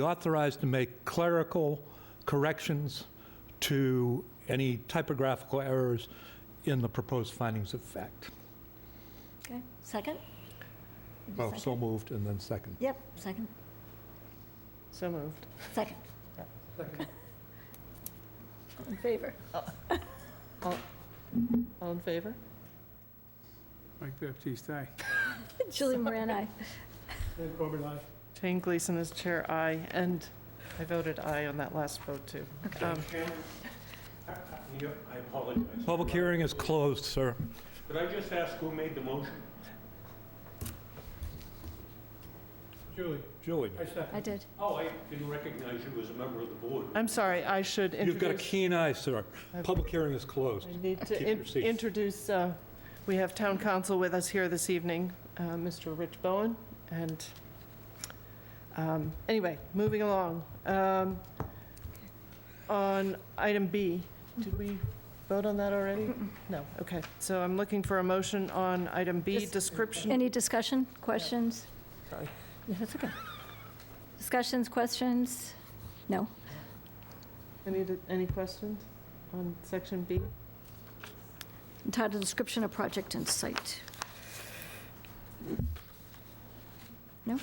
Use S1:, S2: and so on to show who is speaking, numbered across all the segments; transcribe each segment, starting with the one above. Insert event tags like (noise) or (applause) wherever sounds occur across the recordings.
S1: authorized to make clerical corrections to any typographical errors in the proposed findings of fact.
S2: Okay, second?
S1: Oh,
S2: Second.
S1: so moved and then second.
S2: Yep, second,
S3: So moved.
S2: second. All In favor?
S3: All, all in favor?
S4: Mike Baptiste, aye.
S2: (laughs) Julie Moran, aye.
S4: Ed Corbett, aye.
S3: Jane Gleason is chair, aye, and I voted aye on that last vote, too. Um,
S5: (laughs) I apologize.
S1: Public hearing is closed, sir.
S5: Could I just ask who made the motion?
S4: Julie,
S1: Julie,
S4: I second.
S2: I did.
S5: Oh, I didn't recognize you as a member of the board.
S3: I'm sorry, I should
S1: you've got a
S3: introduce,
S1: keen eye, sir. Public hearing is closed.
S3: I need
S1: Keep
S3: to
S1: your
S3: in-
S1: seat.
S3: introduce, uh, we have town council with us here this evening, uh, Mr. Rich Bowen, and, um, anyway, moving along. Um, On item B, did we vote on that already? No, okay, so I'm looking for a motion on item B,
S2: Just-
S3: description
S2: Any discussion, questions?
S3: Sorry.
S2: No, that's okay. Discussions, questions? No?
S3: Any, any questions on section B?
S2: Entitled description of project and site.
S4: I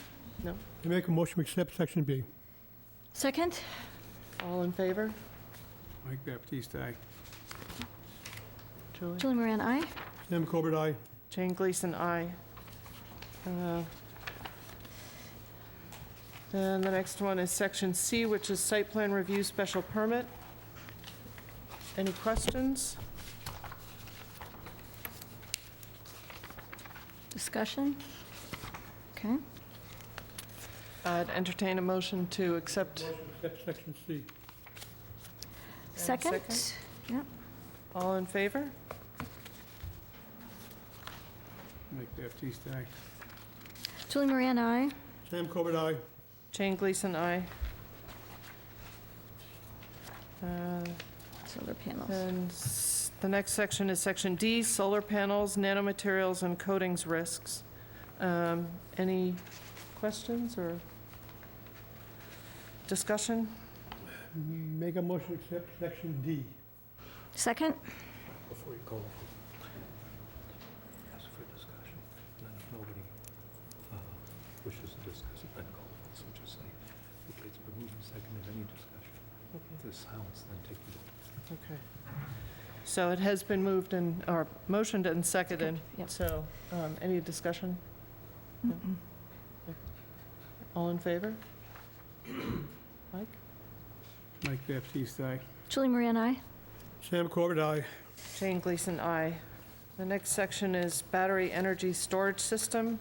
S4: make a motion to accept section B.
S2: Second?
S3: All in favor?
S4: Mike Baptiste, aye.
S3: Julie?
S2: Julie Moran, aye.
S4: Sam Corbett, aye.
S3: Jane Gleason, aye. Uh, Then the next one is section C, which is site plan review special permit. Any questions?
S2: Discussion? Okay.
S3: I'd entertain a motion to accept.
S4: Accept section C.
S3: And
S2: Second?
S3: All in favor?
S4: Mike Baptiste, aye.
S2: Julie Moran, aye.
S4: Sam Corbett, aye.
S3: Jane Gleason, aye. Uh,
S2: Solar panels.
S3: And s- the next section is Section D, solar panels, nanomaterials, and coatings risks. Um, Any questions or discussion?
S4: Make a motion to accept section D.
S2: Second?
S1: Before you call. Ask for discussion, and then if nobody uh, wishes to discuss it, then call for it. So just say, okay, it's been moved and seconded, any discussion? If there's silence, then take the vote.
S3: So it has been moved and, or motioned and seconded,
S2: Yep.
S3: so um, any discussion?
S2: Mm-mm.
S3: All in favor?
S4: Mike Baptiste, aye.
S2: Julie Moran, aye.
S4: Sam Corbett, aye.
S3: Jane Gleason, aye. The next section is battery energy storage system.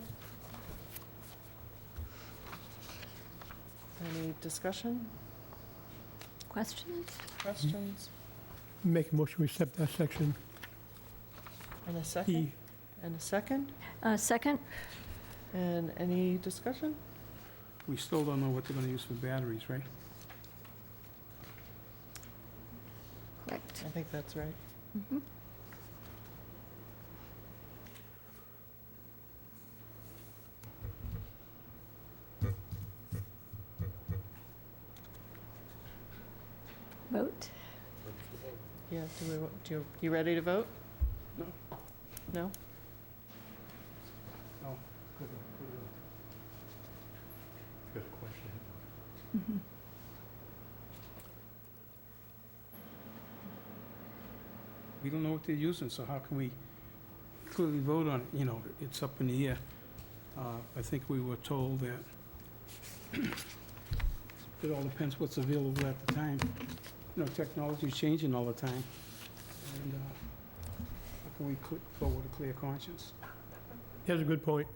S3: Any discussion?
S2: Questions?
S3: Questions?
S4: Make a motion to accept that section
S3: And a
S4: E.
S3: second? And a second?
S2: Uh, Second?
S3: And any discussion?
S4: We still don't know what they're gonna use for batteries, right?
S2: Correct.
S3: I think that's right.
S2: Mhm. Vote?
S3: Yeah, do we, do you, you ready to vote?
S4: No.
S3: No?
S1: Got a question?
S2: Mhm.
S4: We don't know what they're using, so how can we clearly vote on it? You know, it's up in the air. Uh, I think we were told that it all depends what's available at the time. You know, technology's changing all the time. And uh, how can we cl- vote with a clear conscience? That's a good point.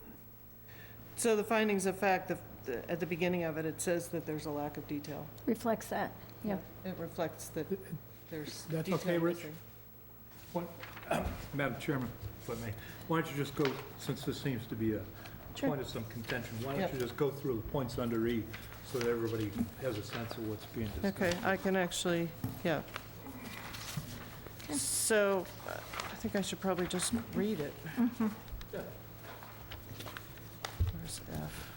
S3: So the findings of fact, the- the- at the beginning of it, it says that there's a lack of detail.
S2: Reflects that. Yeah.
S3: It reflects that there's
S4: That's
S3: detail
S4: okay, Rich?
S3: missing.
S1: Madam Chairman, if I may, why don't you just go, since this seems to be a
S3: Sure.
S1: point of some contention, why don't
S3: Yep.
S1: you just go through the points under E so that everybody has a sense of what's being discussed?
S3: Okay, I can actually, yeah.
S2: Okay.
S3: So uh, I think I should probably just read it.
S1: Yeah.
S3: Where's F?